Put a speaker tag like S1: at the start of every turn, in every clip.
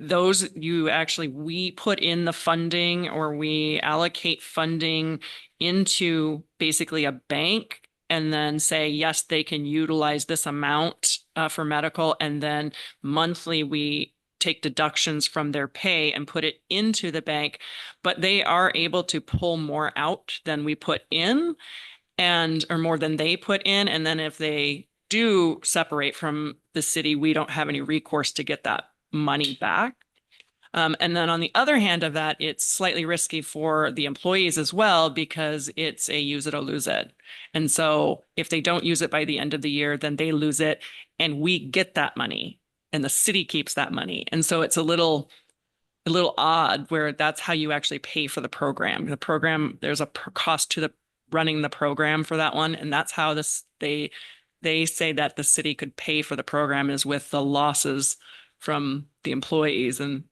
S1: those you actually, we put in the funding or we allocate funding into basically a bank and then say, yes, they can utilize this amount uh, for medical. And then monthly, we take deductions from their pay and put it into the bank. But they are able to pull more out than we put in and, or more than they put in. And then if they do separate from the city, we don't have any recourse to get that money back. Um, and then on the other hand of that, it's slightly risky for the employees as well because it's a use it or lose it. And so if they don't use it by the end of the year, then they lose it and we get that money and the city keeps that money. And so it's a little, a little odd where that's how you actually pay for the program. The program, there's a per- cost to the running the program for that one. And that's how this, they, they say that the city could pay for the program is with the losses from the employees. And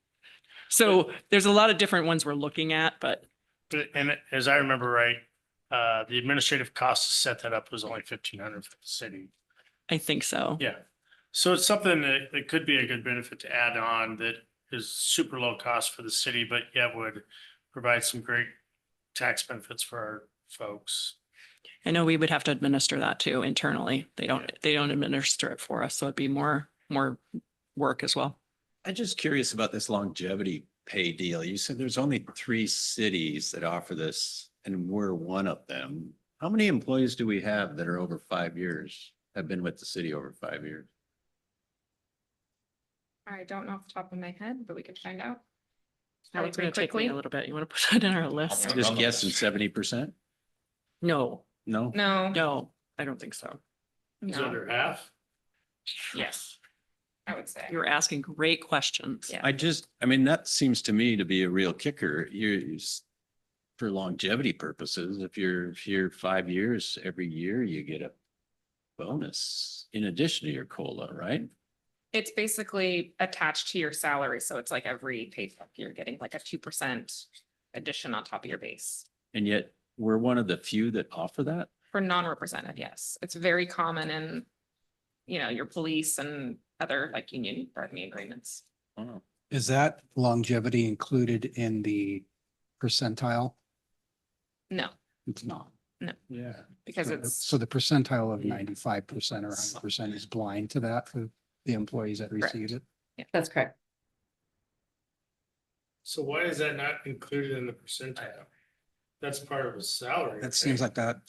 S1: so there's a lot of different ones we're looking at, but
S2: But- And as I remember right, uh, the administrative cost to set that up was only fifteen hundred for the city.
S1: I think so.
S2: Yeah. So it's something that, that could be a good benefit to add on that is super low cost for the city, but yet would provide some great tax benefits for our folks.
S1: I know we would have to administer that too internally. They don't, they don't administer it for us, so it'd be more, more work as well.
S3: I'm just curious about this longevity pay deal. You said there's only three cities that offer this and we're one of them. How many employees do we have that are over five years, have been with the city over five years?
S4: I don't know off the top of my head, but we could find out.
S1: Now
S4: Probably
S1: it's gonna
S4: pretty
S1: take me a
S4: quickly.
S1: little bit. You want to put that in our list?
S3: I'm Just guessing seventy percent?
S1: No,
S3: No?
S4: No.
S1: no, I don't think so.
S2: Is
S4: no,
S2: that under half?
S4: Yes. I would say.
S1: You're asking great questions.
S4: Yeah.
S3: I just, I mean, that seems to me to be a real kicker. You're, you s- for longevity purposes, if you're here five years, every year you get a bonus in addition to your COLA, right?
S4: It's basically attached to your salary, so it's like every paycheck, you're getting like a two percent addition on top of your base.
S3: And yet we're one of the few that offer that?
S4: For non-represented, yes. It's very common in, you know, your police and other like union bargaining agreements.
S3: Wow.
S5: Is that longevity included in the percentile?
S4: No,
S5: It's not.
S3: Yeah.
S4: because
S5: So-
S4: it's,
S5: So the percentile of ninety-five percent or hundred percent is blind to that for the employees that
S4: Correct.
S5: receive it?
S6: That's correct.
S2: So why is that not included in the percentile? That's part of a salary.
S5: That seems like that,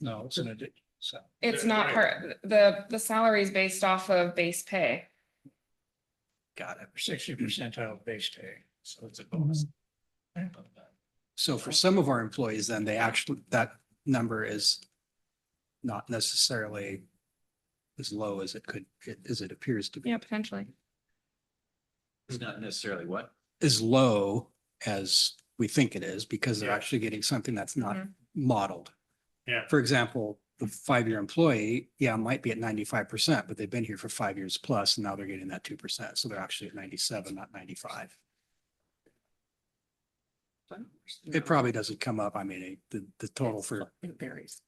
S5: no, it's an addiction, so.
S4: it's not her, the, the salary is based off of base pay.
S5: Got it. Sixty percentile base pay, so it's a bonus. Mm-hmm. So for some of our employees, then they actually, that number is not necessarily as low as it could, as it appears to be.
S4: Yeah, potentially.
S3: It's not necessarily what?
S5: as low as we think it is because they're
S2: Yeah.
S5: actually getting something that's not
S1: Mm-hmm.
S4: Mhm.
S5: modeled.
S2: Yeah.
S5: For example, the five-year employee, yeah, might be at ninety-five percent, but they've been here for five years plus and now they're getting that two percent. So they're actually at ninety-seven, not ninety-five. It probably doesn't come up. I mean, it- the, the total for
S1: It varies.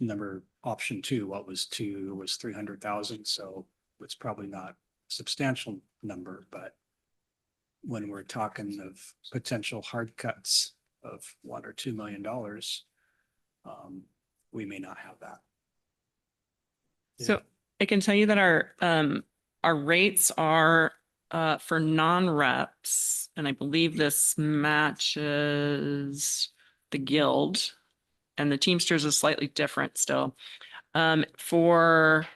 S5: number option two, what was two was three hundred thousand. So it's probably not substantial number, but when we're talking of potential hard cuts of one or two million dollars, um, we may not have that.
S1: So I can tell you that our, um, our rates are, uh, for non-reps, and I believe this matches the guild. And the Teamsters is slightly different still. Um, for,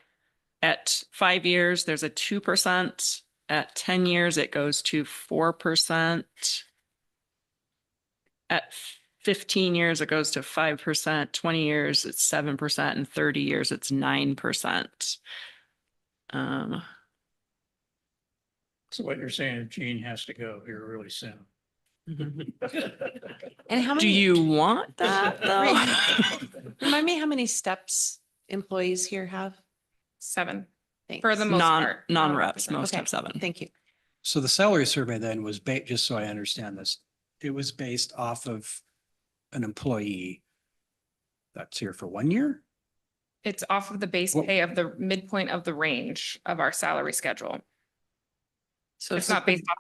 S1: at five years, there's a two percent. At ten years, it goes to four percent. At fifteen years, it goes to five percent, twenty years, it's seven percent, and thirty years, it's nine percent. Um,
S2: So what you're saying, Gene has to go here really soon.
S6: And how many?
S1: do you want that though?
S6: Remind me how many steps employees here have?
S4: Seven,
S6: Thanks.
S4: for the most
S1: Non,
S4: part.
S1: non-reps,
S4: 100%.
S1: most
S6: Okay.
S1: have seven.
S6: Thank you.
S5: So the salary survey then was ba, just so I understand this, it was based off of an employee that's here for one year?
S4: It's off of the base
S5: What-
S4: pay of the midpoint of the range of our salary schedule.
S1: So
S4: It's not based off